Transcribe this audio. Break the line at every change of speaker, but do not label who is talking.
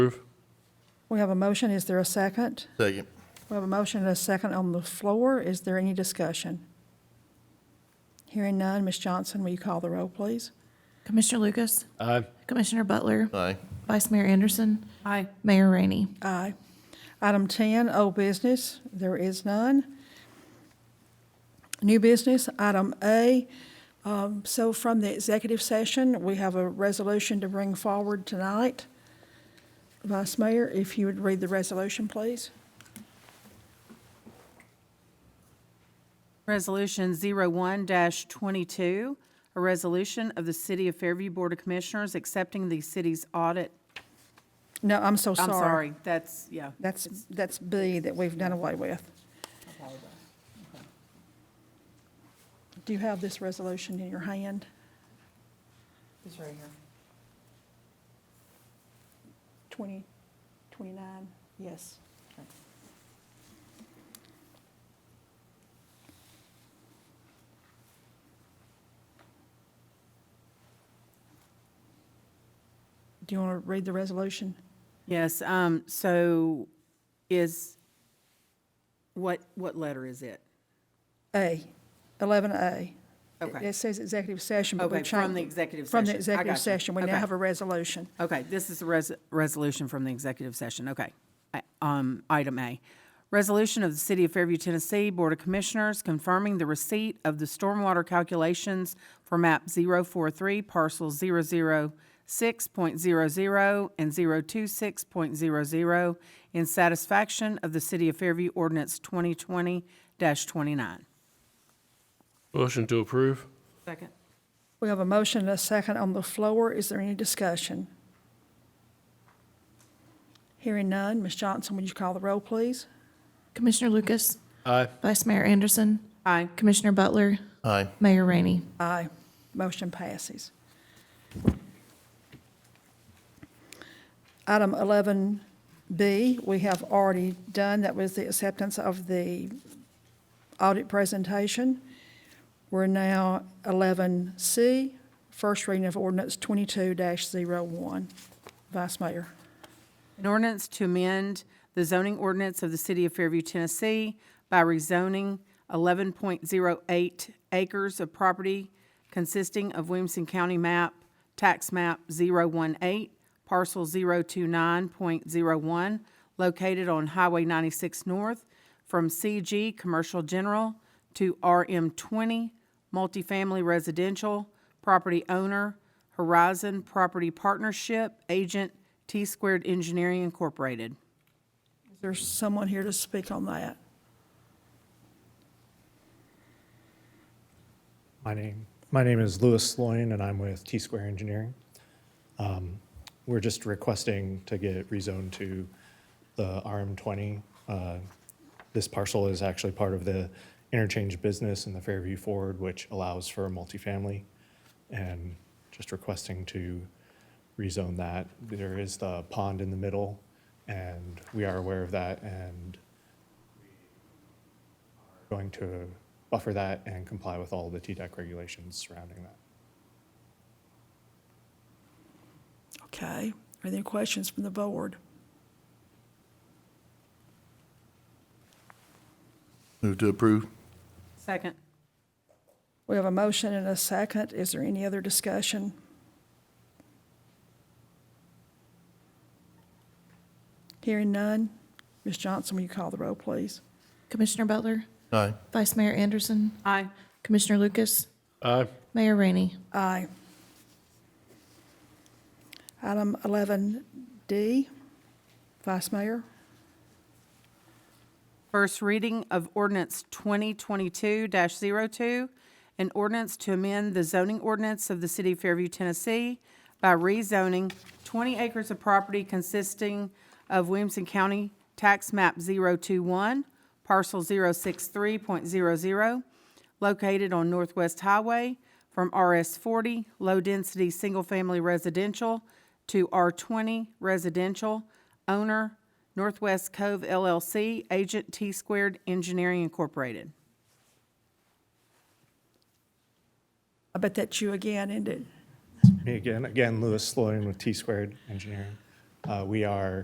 We have a motion. Is there a second?
Second.
We have a motion and a second on the floor. Is there any discussion? Hearing none, Ms. Johnson, will you call the roll, please?
Commissioner Lucas?
Aye.
Commissioner Butler?
Aye.
Vice Mayor Anderson? Aye. Mayor Rainey?
Aye. Item 10, old business, there is none. New business, item A. Um, So from the executive session, we have a resolution to bring forward tonight. Vice Mayor, if you would read the resolution, please.
Resolution 01-22, a resolution of the City of Fairview Board of Commissioners accepting the city's audit.
No, I'm so sorry.
I'm sorry, that's, yeah.
That's, that's B that we've done away with. Do you have this resolution in your hand?
It's right here.
20, 29, yes. Do you want to read the resolution?
Yes, um, so is, what, what letter is it?
A, 11A.
Okay.
It says executive session, but
Okay,
we've
from the
changed.
executive session.
From the
I
executive
gotcha.
session, we now
Okay.
have a resolution.
Okay, this is a res- resolution from the executive session, okay. I- Um, item A, resolution of the City of Fairview, Tennessee Board of Commissioners confirming the receipt of the stormwater calculations for map 043, parcel 006.00 and 026.00, in satisfaction of the City of Fairview ordinance twenty twenty twenty-nine.
Motion to approve.
Second.
We have a motion and a second on the floor. Is there any discussion? Hearing none. Ms. Johnson, would you call the roll, please?
Commissioner Lucas?
Aye.
Vice Mayor Anderson?
Aye.
Commissioner Butler?
Aye.
Mayor Rainey?
Aye. Motion passes. Item 11B, we have already done. That was the acceptance of the audit presentation. We're now 11C, first reading of ordinance 22-01. Vice Mayor.
An ordinance to amend the zoning ordinance of the City of Fairview, Tennessee by rezoning 11.08 acres of property consisting of Williamson County map, tax map 018, parcel 029.01, located on Highway 96 North, from CG Commercial General to RM20 Multifamily Residential, property owner Horizon Property Partnership, agent T Squared Engineering Incorporated.
Is there someone here to speak on that?
My name, my name is Louis Sloyan, and I'm with T-Square Engineering. Um, We're just requesting to get rezoned to the RM20. Uh, This parcel is actually part of the interchange business in the Fairview Forward, which allows for multifamily, and just requesting to rezone that. There is the pond in the middle, and we are aware of that, and going to buffer that and comply with all the TDEC regulations surrounding that.
Okay. Are there any questions from the board?
Move to approve.
Second.
We have a motion and a second. Is there any other discussion? Hearing none. Ms. Johnson, will you call the roll, please?
Commissioner Butler?
Aye.
Vice Mayor Anderson?
Aye.
Commissioner Lucas?
Aye.
Mayor Rainey?
Aye. Item 11D, Vice Mayor.
First reading of ordinance 2022-02, an ordinance to amend the zoning ordinance of the city of Fairview, Tennessee by rezoning 20 acres of property consisting of Williamson County Tax Map 021, parcel 063.00, located on Northwest Highway from RS 40, low-density, single-family residential, to R 20 residential, owner Northwest Cove LLC, agent T Squared Engineering Incorporated.
I bet that's you again, isn't it?
Me again, again, Louis Sloan with T-Squared Engineering. Uh, We are